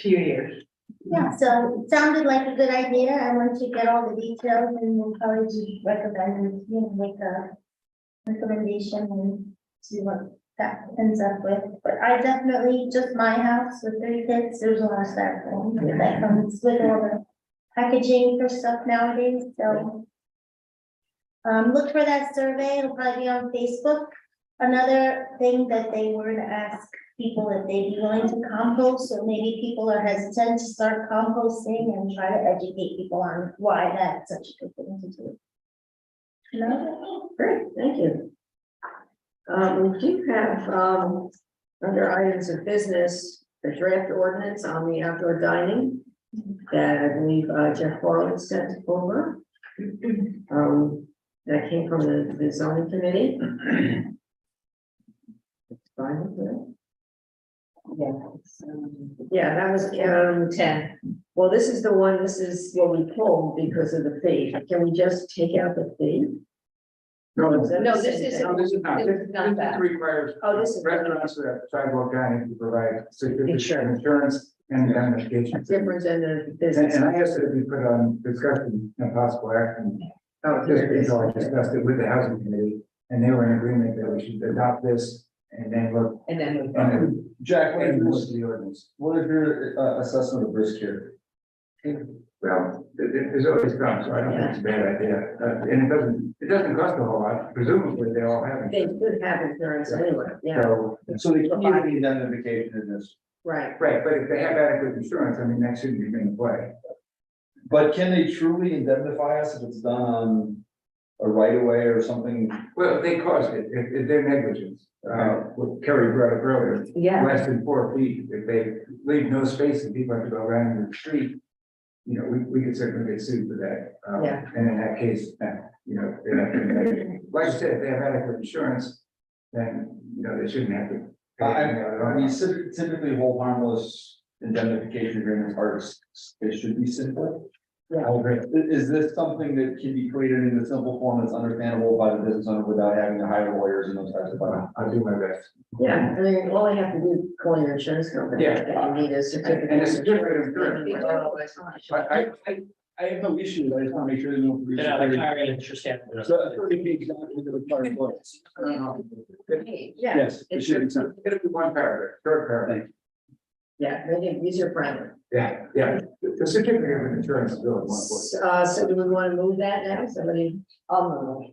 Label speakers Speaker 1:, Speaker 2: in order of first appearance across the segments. Speaker 1: few years.
Speaker 2: Yeah, so it sounded like a good idea, and once you get all the details and then college recommend, you know, make a recommendation and see what that ends up with, but I definitely, just my house with three kids, there's a lot of styrofoam that comes with all the packaging for stuff nowadays, so. Um, look for that survey, it'll probably be on Facebook, another thing that they were to ask people if they'd be willing to compost, so maybe people are hesitant to start composting and try to educate people on why that's such a good thing to do. No?
Speaker 1: Great, thank you. Um, we do have, um, under items of business, the draft ordinance on the outdoor dining that I believe uh, Jeff Borland sent over. Um, that came from the the zoning committee. It's fine with that. Yeah, that was, um, ten. Well, this is the one, this is what we pulled because of the fee. Can we just take out the fee?
Speaker 3: No,
Speaker 1: Is
Speaker 3: it's-
Speaker 1: that the
Speaker 4: No,
Speaker 1: same
Speaker 4: this
Speaker 1: thing?
Speaker 4: isn't.
Speaker 3: no, this is not,
Speaker 4: This
Speaker 3: this
Speaker 4: is not
Speaker 3: this
Speaker 4: that.
Speaker 3: requires
Speaker 1: Oh, this is-
Speaker 3: restaurants that have sidewalk dining to provide
Speaker 1: Insurance.
Speaker 3: certificate insurance and indemnification.
Speaker 1: Different than the
Speaker 3: And,
Speaker 1: business.
Speaker 3: and I asked that we put on discussion and possible action,
Speaker 1: Oh,
Speaker 3: just
Speaker 1: here it is.
Speaker 3: because I discussed it with the housing committee, and they were in agreement that we should adopt this and then look.
Speaker 4: And then.
Speaker 3: And
Speaker 5: Jack, what
Speaker 3: and look
Speaker 5: is,
Speaker 3: at the ordinance.
Speaker 5: what is your uh, assessment of risk here?
Speaker 3: Well, it, it- it's always done, so I don't think it's a bad idea, Uh, and it doesn't, it doesn't cost a whole lot, presumably they all have
Speaker 1: They
Speaker 3: it.
Speaker 1: could have insurance anyway, yeah,
Speaker 3: So,
Speaker 5: So the community identification in this,
Speaker 1: right.
Speaker 3: right, but if they have adequate insurance, I mean, that shouldn't be in play.
Speaker 5: but can they truly indemnify us if it's done on a right of way or something?
Speaker 3: Well, they caused it, if, if their negligence, uh, what Kerry brought up earlier,
Speaker 1: Yeah,
Speaker 3: less than four feet, if they leave no space and people have to go around in the street. You know, we, we could certainly get sued for that, um,
Speaker 1: Yeah.
Speaker 3: and in that case, uh, you know, they're not gonna make it. like I said, if they have adequate insurance, then, you know, they shouldn't have to. pay
Speaker 5: I-
Speaker 3: anything out at
Speaker 5: I
Speaker 3: all.
Speaker 5: mean, typ- typically hold harmless indemnification agreements are, s- they should be simple.
Speaker 1: Yeah.
Speaker 5: I agree. I- Is this something that can be created in a simple form that's understandable by the business owner without having to hire lawyers and those types of things?
Speaker 3: Well, I'll do my best,
Speaker 1: yeah, I mean, all they have to do, is call your insurance company,
Speaker 3: Yeah.
Speaker 1: and you need a certificate.
Speaker 3: And a certificate of insurance.
Speaker 1: They don't always want to show up.
Speaker 5: I, I, I have no issue, I just wanna make sure there's no.
Speaker 6: They're not like hiring an insurance staff.
Speaker 5: So a thirty feet is not going to require bullets.
Speaker 1: Yeah,
Speaker 5: Yes, it should be something.
Speaker 3: it'll be one paragraph, short paragraph,
Speaker 1: yeah, they can use your friendly.
Speaker 3: yeah, yeah, the the certificate of insurance is really one point.
Speaker 1: Uh, so do we want to move that now, somebody?
Speaker 4: I'll move.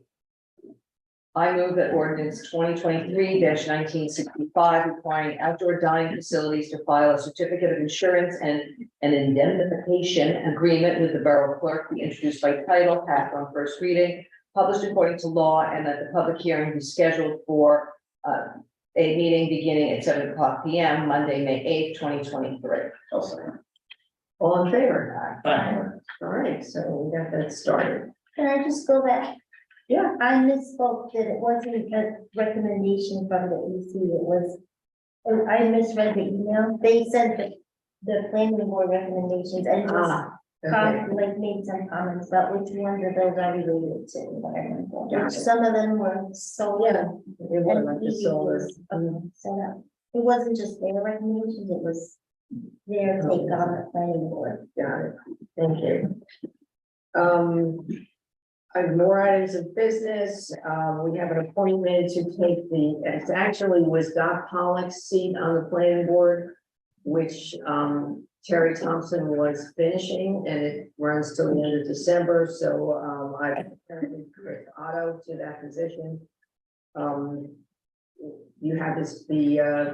Speaker 4: I move that ordinance twenty twenty-three nineteen sixty-five requiring outdoor dining facilities to file a certificate of insurance and an indemnification agreement with the borough clerk be introduced by title, passed on first reading, published according to law, and that the public hearing be scheduled for uh, a meeting beginning at seven o'clock P M, Monday, May eighth, twenty twenty-three.
Speaker 5: I'll second.
Speaker 1: All in favor?
Speaker 6: Aye.
Speaker 1: All right, so we got that started.
Speaker 2: Can I just go back?
Speaker 1: Yeah.
Speaker 2: I misspoke, that it wasn't a recommendation from the EC, it was, oh, I misread the email, they sent the, the planning board recommendations, and just
Speaker 1: Ah, okay.
Speaker 2: com- like made some comments about which ones of those are related to environmental.
Speaker 1: Got it.
Speaker 2: Some of them were so.
Speaker 1: Yeah, It wasn't like the solar. Mm,
Speaker 2: So that, um, it wasn't just their recommendations, it was their take on the planning board.
Speaker 1: Got it, thank you. Um, I have more items of business, um, we have an appointment to take the, it actually was Doc Pollock's seat on the planning board, which, um, Terry Thompson was finishing, and it runs till the end of December, so, um, I appointed Chris Otto to that position. Um, you have this, the, uh,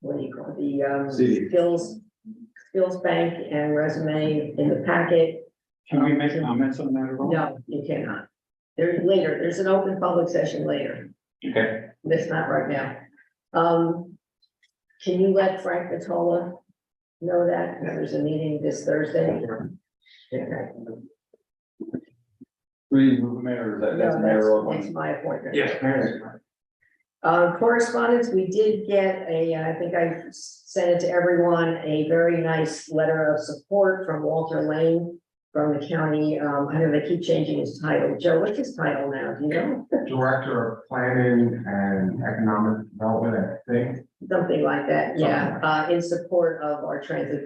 Speaker 1: what do you call it, the, um,
Speaker 5: See.
Speaker 1: skills skills bank and resume in the packet.
Speaker 3: Can
Speaker 1: we
Speaker 3: make comments on that at
Speaker 1: No, you cannot. There's later, there's an open public session later.
Speaker 5: Okay.
Speaker 1: That's not right now. Um, can you let Frank Vitola know that there's a meeting this Thursday? Okay.
Speaker 5: We move the mayor, that, that's
Speaker 1: No,
Speaker 5: mayor.
Speaker 1: That's my appointment.
Speaker 3: Yes, apparently.
Speaker 1: Uh, correspondence, we did get a, I think I sent it to everyone, a very nice letter of support from Walter Lane from the county. Um, I know they keep changing his title. Joe, what's his title now? Do you know?
Speaker 3: Director of Planning and Economic Development, I think.
Speaker 1: Something like that, yeah, uh, in support of our transit